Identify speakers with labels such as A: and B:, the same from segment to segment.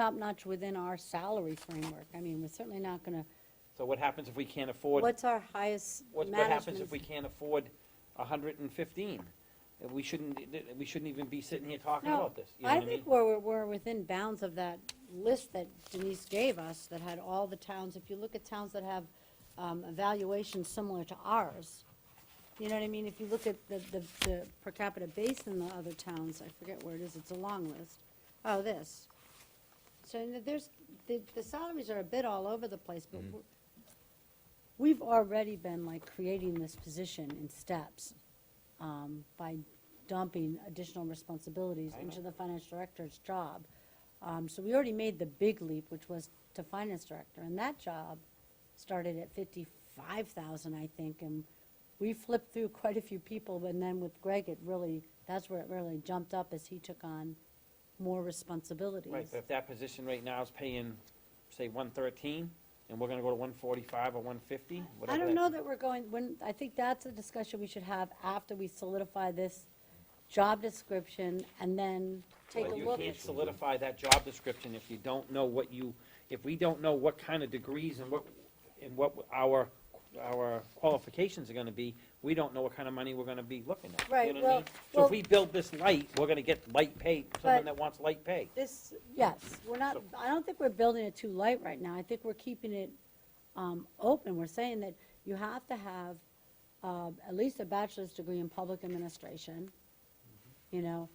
A: top-notch within our salary framework. I mean, we're certainly not gonna,
B: So what happens if we can't afford, what,
A: what's our highest
B: what
A: management?
B: happens if we can't afford a hundred and fifteen? We shouldn't, we shouldn't even be sitting here talking
A: No,
B: about this, you know
A: I
B: what I mean?
A: think we're, we're within bounds of that list that Denise gave us that had all the towns. If you look at towns that have um, evaluations similar to ours, you know what I mean? If you look at the, the, the per capita base in the other towns, I forget where it is, it's a long list. Oh, this. So and there's, the, the salaries are a bit all over the place,
B: Mm-hmm.
A: but we're- we've already been like creating this position in steps um, by dumping additional responsibilities
B: I know.
A: into the finance director's job. Um, So we already made the big leap, which was to finance director, and that job started at fifty-five thousand, I think, and we flipped through quite a few people, and then with Greg, it really, that's where it really jumped up as he took on more responsibilities.
B: Right, but if that position right now is paying, say, one thirteen, and we're gonna go to one forty-five or one fifty,
A: I
B: whatever.
A: don't
B: that-
A: know that we're going, when, I think that's a discussion we should have after we solidify this job description and then take a
B: But
A: look
B: You
A: at.
B: can't solidify that job description if you don't know what you, if we don't know what kind of degrees and what, and what our, our qualifications are gonna be, we don't know what kind of money we're gonna be looking at. you
A: Right,
B: know what I
A: well-
B: mean? So
A: well-
B: if we build this light, we're gonna get light pay, someone
A: But-
B: that wants light pay.
A: This, yes, we're not, I don't think we're building it too light right now. I think we're keeping it um, open. We're saying that you have to have um, at least a bachelor's degree in public administration,
B: Mm-hmm.
A: you know,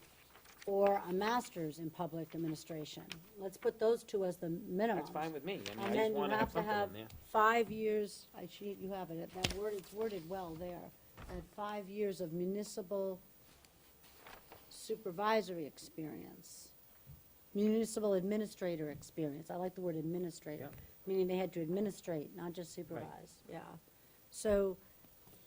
A: or a master's in public administration. Let's put those two as the minimum.
B: That's fine with me, I
A: And
B: mean, I just
A: then you
B: wanna have
A: have to
B: something
A: have
B: in there.
A: five years, I, she, you have it, that word, it's worded well there, that five years of municipal supervisory experience, municipal administrator experience, I like the word administrator,
B: Yeah.
A: meaning they had to administrate, not just supervise, yeah. So,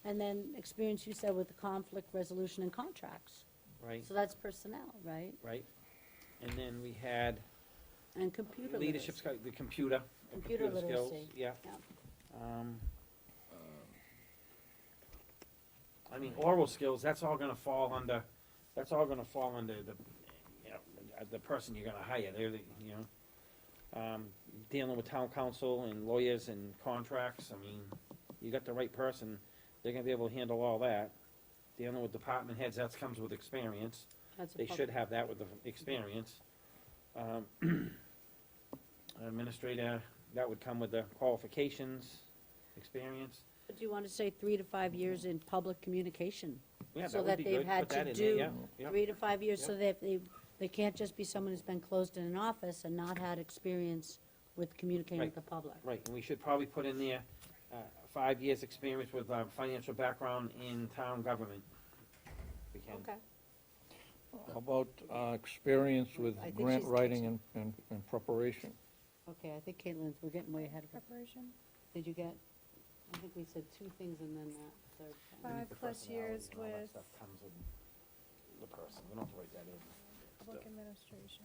A: and then experience you said with the conflict resolution and contracts,
B: Right,
A: so that's personnel, right?
B: right. And then we had
A: And computer
B: leadership,
A: literacy.
B: sco- the computer. the
A: Computer
B: skills,
A: literacy.
B: Yeah.
A: Yeah.
B: Um, I mean, oral skills, that's all gonna fall under, that's all gonna fall under the, you know, uh, the person you're gonna hire, they're, the you know. Um, Dealing with town council and lawyers and contracts, I mean, you got the right person, they're gonna be able to handle all that. Dealing with department heads, that comes with experience.
A: That's a
B: They
A: pub-
B: should have that with the experience. Um, Administrator, that would come with the qualifications, experience.
A: Do you want to say three to five years in public communication?
B: Yeah,
A: So that
B: that would be
A: they've
B: good.
A: had
B: Put that
A: to
B: in there,
A: do
B: yeah, yeah.
A: Three to five years, so
B: Yep.
A: that they, they can't just be someone who's been closed in an office and not had experience with communicating with
B: Right.
A: the public.
B: Right, and we should probably put in there, uh, five years' experience with uh, financial background in town government. We can.
C: How about uh, experience with
A: I think
C: grant
A: she's-
C: writing and- and and preparation?
A: Okay, I think Caitlin, we're getting way ahead of her. Preparation? Did you get, I think we said two things and then that third
B: I
A: thing.
B: think
D: Five
B: the
D: plus
B: personality
D: years
B: and all that
D: with-
B: stuff comes with The person, we don't have to write that in.
D: Public administration.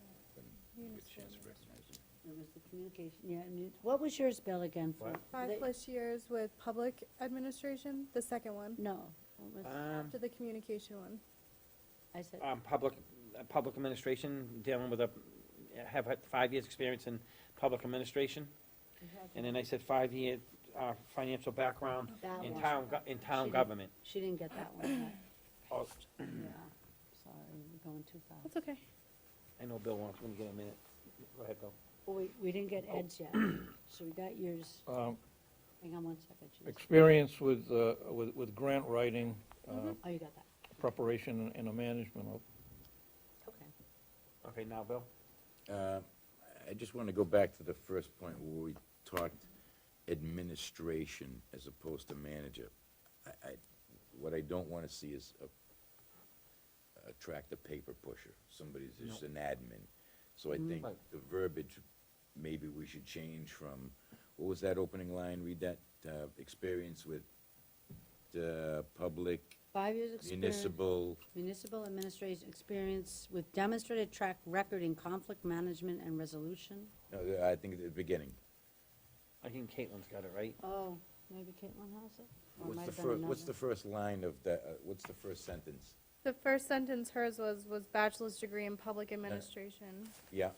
D: municipal administration.
A: It was the communication, yeah, and you- what was yours, Bill, again? for-
B: What?
D: Five
A: they-
D: plus years with public administration, the second one,
A: No, what was,
B: Um,
D: to the communication one.
A: I said,
B: um, public, uh, public administration, dealing with a, have had five years' experience in public administration. And then I said five-year, uh, financial background
A: that
B: in
A: one,
B: town, go- in town
A: She-
B: government.
A: she didn't get that one,
B: Oh,
A: yeah, sorry, we're going too fast.
D: That's okay.
B: I know Bill wants, let me get a minute. Go ahead, Bill.
A: We, we didn't get
B: Oh.
A: Ed's yet, so we got yours,
C: Um,
A: hang on one second. Janice.
C: Experience with, uh, with with grant writing, uh,
A: Oh, you got that,
C: preparation and- and the management of,
A: okay.
B: Okay, now, Bill?
E: Uh, I just want to go back to the first point where we talked administration as opposed to manager. I, I, what I don't want to see is a- attract a paper pusher, somebody who's just an admin. So I think
B: Right.
E: the verbiage, maybe we should change from, what was that opening line, read that, uh, experience with, uh, public,
A: Five years experience,
E: municipal,
A: municipal administration experience with demonstrated track record in conflict management and resolution.
E: no, I think at the beginning.
B: I think Caitlin's got it right.
A: Oh, maybe Caitlin has it? Or it might
E: What's the
A: have been
E: first, what's the
A: another.
E: first line of the, uh, what's the first sentence?
D: The first sentence hers was, was bachelor's degree in public administration.
E: Yeah,